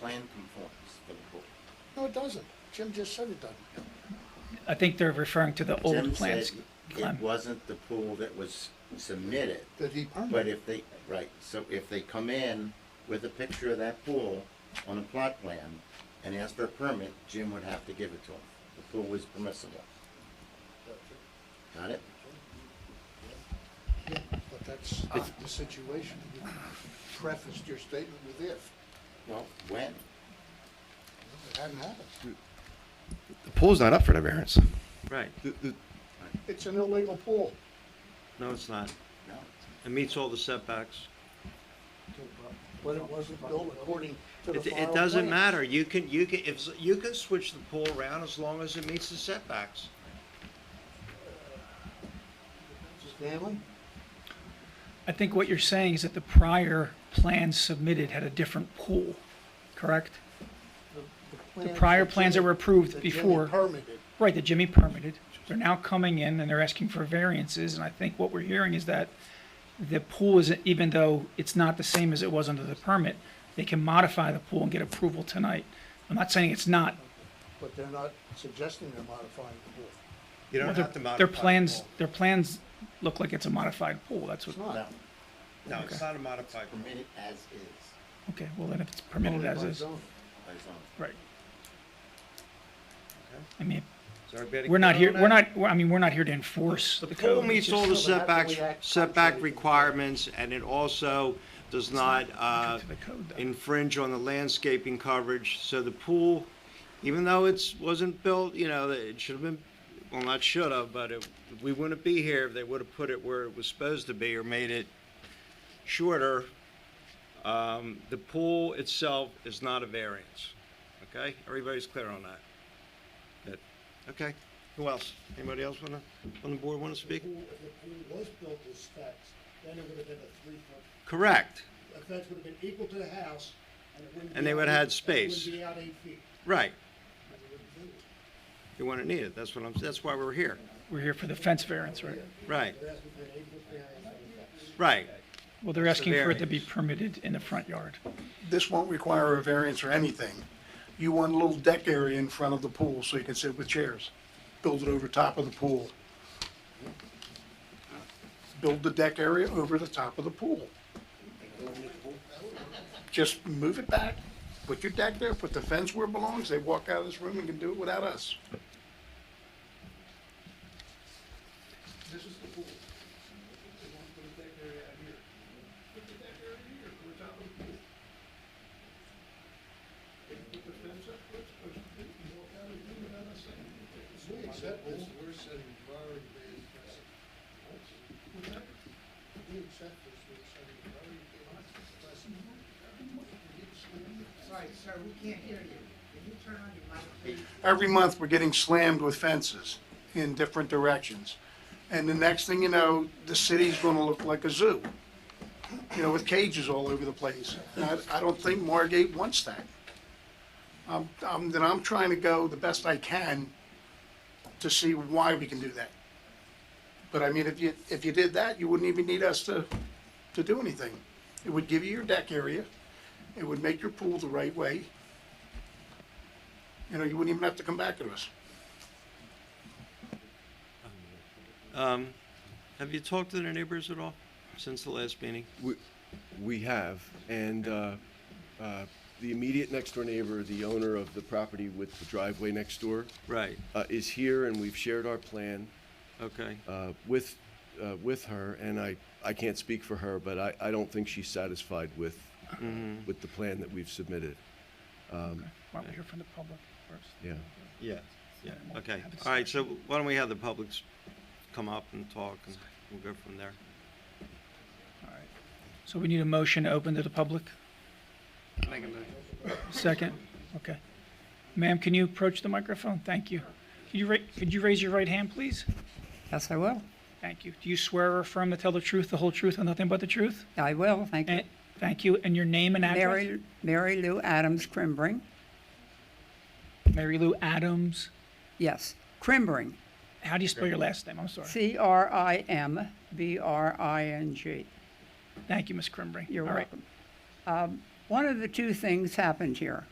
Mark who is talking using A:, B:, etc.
A: plan conforms to the book.
B: No, it doesn't. Jim just said it doesn't.
C: I think they're referring to the
A: Jim
C: old plans,
A: said It
C: Clem.
A: wasn't the pool that was submitted,
B: That he permitted.
A: but if they, right, so if they come in with a picture of that pool on a plot plan and ask for a permit, Jim would have to give it to them. The pool was permissible. Got it?
B: Yeah, but that's not the situation. You prefaced your statement with if.
A: Well, when?
B: It hadn't happened.
D: The pool's not up for the variance.
E: Right,
D: The- the-
B: It's an illegal pool.
E: no, it's not.
A: No.
E: It meets all the setbacks.
B: But it wasn't built according to the
E: It,
B: final
E: it doesn't
B: plans.
E: matter, you can, you can, if, you can switch the pool around as long as it meets the setbacks.
B: Stanley?
C: I think what you're saying is that the prior plan submitted had a different pool, correct?
B: plans
C: prior
B: that
C: plans that
B: Jimmy-
C: were approved
B: that Jimmy
C: before.
B: Permitted.
C: Right, that Jimmy permitted. They're now coming in and they're asking for variances, and I think what we're hearing is that the pool is, even though it's not the same as it was under the permit, they can modify the pool and get approval tonight. I'm not saying it's not.
B: But they're not suggesting they're modifying the pool.
E: You don't
C: their-
E: have to modify.
C: Their
E: the
C: plans,
E: pool.
C: their plans look like it's a modified pool, that's
B: It's
C: what,
A: No,
B: not.
E: No, it's not a modified. pool.
A: permitted as is.
C: okay, well then if it's permitted
B: Only
C: as
B: by
C: is,
B: zoning.
A: by zone.
C: right. I mean,
E: Is everybody
C: we're not
E: clear
C: here,
E: on
C: we're
E: that?
C: not, we're- I mean, we're not here to enforce the
E: The
C: code.
E: pool
C: it's
E: meets
C: just-
E: all the
B: just- No, but that's the
E: setbacks,
B: way I- I'm sorry.
E: setback requirements, and it also does not, uh,
C: to the code, though.
E: infringe on the landscaping coverage, so the pool, even though it's, wasn't built, you know, that it should have been, well, not should have, but it, we wouldn't be here if they would have put it where it was supposed to be or made it shorter. Um, the pool itself is not a variance, okay? Everybody's clear on that? Good, okay. Who else? Anybody else wanna, on the board wanna speak?
F: pool, if the pool was built to specs, then it would have been a three foot,
E: Correct,
F: a fence would have been equal to the house, and it wouldn't.
E: And
F: be
E: they
F: out
E: would have had
F: eight- and it
E: space.
F: Wouldn't be out eight feet.
E: right,
F: and it wouldn't do it.
E: you wouldn't need it, that's what I'm, that's why we're here,
C: We're here for the fence variance, right?
E: right,
F: They're asking for an eight foot variance on the fence.
E: right.
C: Well, they're asking for it to be permitted in the front yard.
G: this won't require a variance or anything. You want a little deck area in front of the pool so you can sit with chairs. Build it over top of the pool. Build the deck area over the top of the pool. Just move it back, put your deck there, put the fence where it belongs, they walk out of this room and can do it without us.
F: This is the pool. They want to put a deck area out here. Put the deck area here, to the top of the pool. They can put the fence up, where it's supposed to be, and walk out and do it without us saying anything.
B: We accept this, we're setting priority based precedent. We accept this, we're setting priority based precedent.
H: Sorry, sir, we can't hear you. Can you turn on your mic, please?
G: Every month, we're getting slammed with fences in different directions. And the next thing you know, the city's gonna look like a zoo, you know, with cages all over the place. And I, I don't think Margate wants that. Um, um, then I'm trying to go the best I can to see why we can do that. But I mean, if you, if you did that, you wouldn't even need us to, to do anything. It would give you your deck area, it would make your pool the right way. You know, you wouldn't even have to come back to us.
E: Um, have you talked to their neighbors at all since the last meeting?
D: We, we have, and uh, uh, the immediate next door neighbor, the owner of the property with the driveway next door,
E: Right,
D: uh, is here, and we've shared our plan
E: okay.
D: uh, with, uh, with her, and I, I can't speak for her, but I, I don't think she's satisfied with, with the plan that we've submitted.
C: Why don't we hear from the public first?
D: Yeah.
E: Yeah, yeah, okay. All right, so why don't we have the publics come up and talk and we'll go from there.
C: All right. So we need a motion to open to the public? Second? Okay. Ma'am, can you approach the microphone? Thank you. Could you ra- could you raise your right hand, please?
I: Yes, I will.
C: Thank you. Do you swear or affirm to tell the truth, the whole truth, and nothing but the truth?
I: I will, thank you.
C: And, Eh, thank you. And your name and address?
I: Mary, Mary Lou Adams Crimbring,
C: Mary Lou Adams.
I: yes, Crimbring,
C: How do you spell your last name? I'm sorry.
I: C-R-I-M-B-R-I-N-G.
C: Thank you, Ms. Crimbring.
I: You're
C: All right.
I: welcome. Um, One of the two things happened here.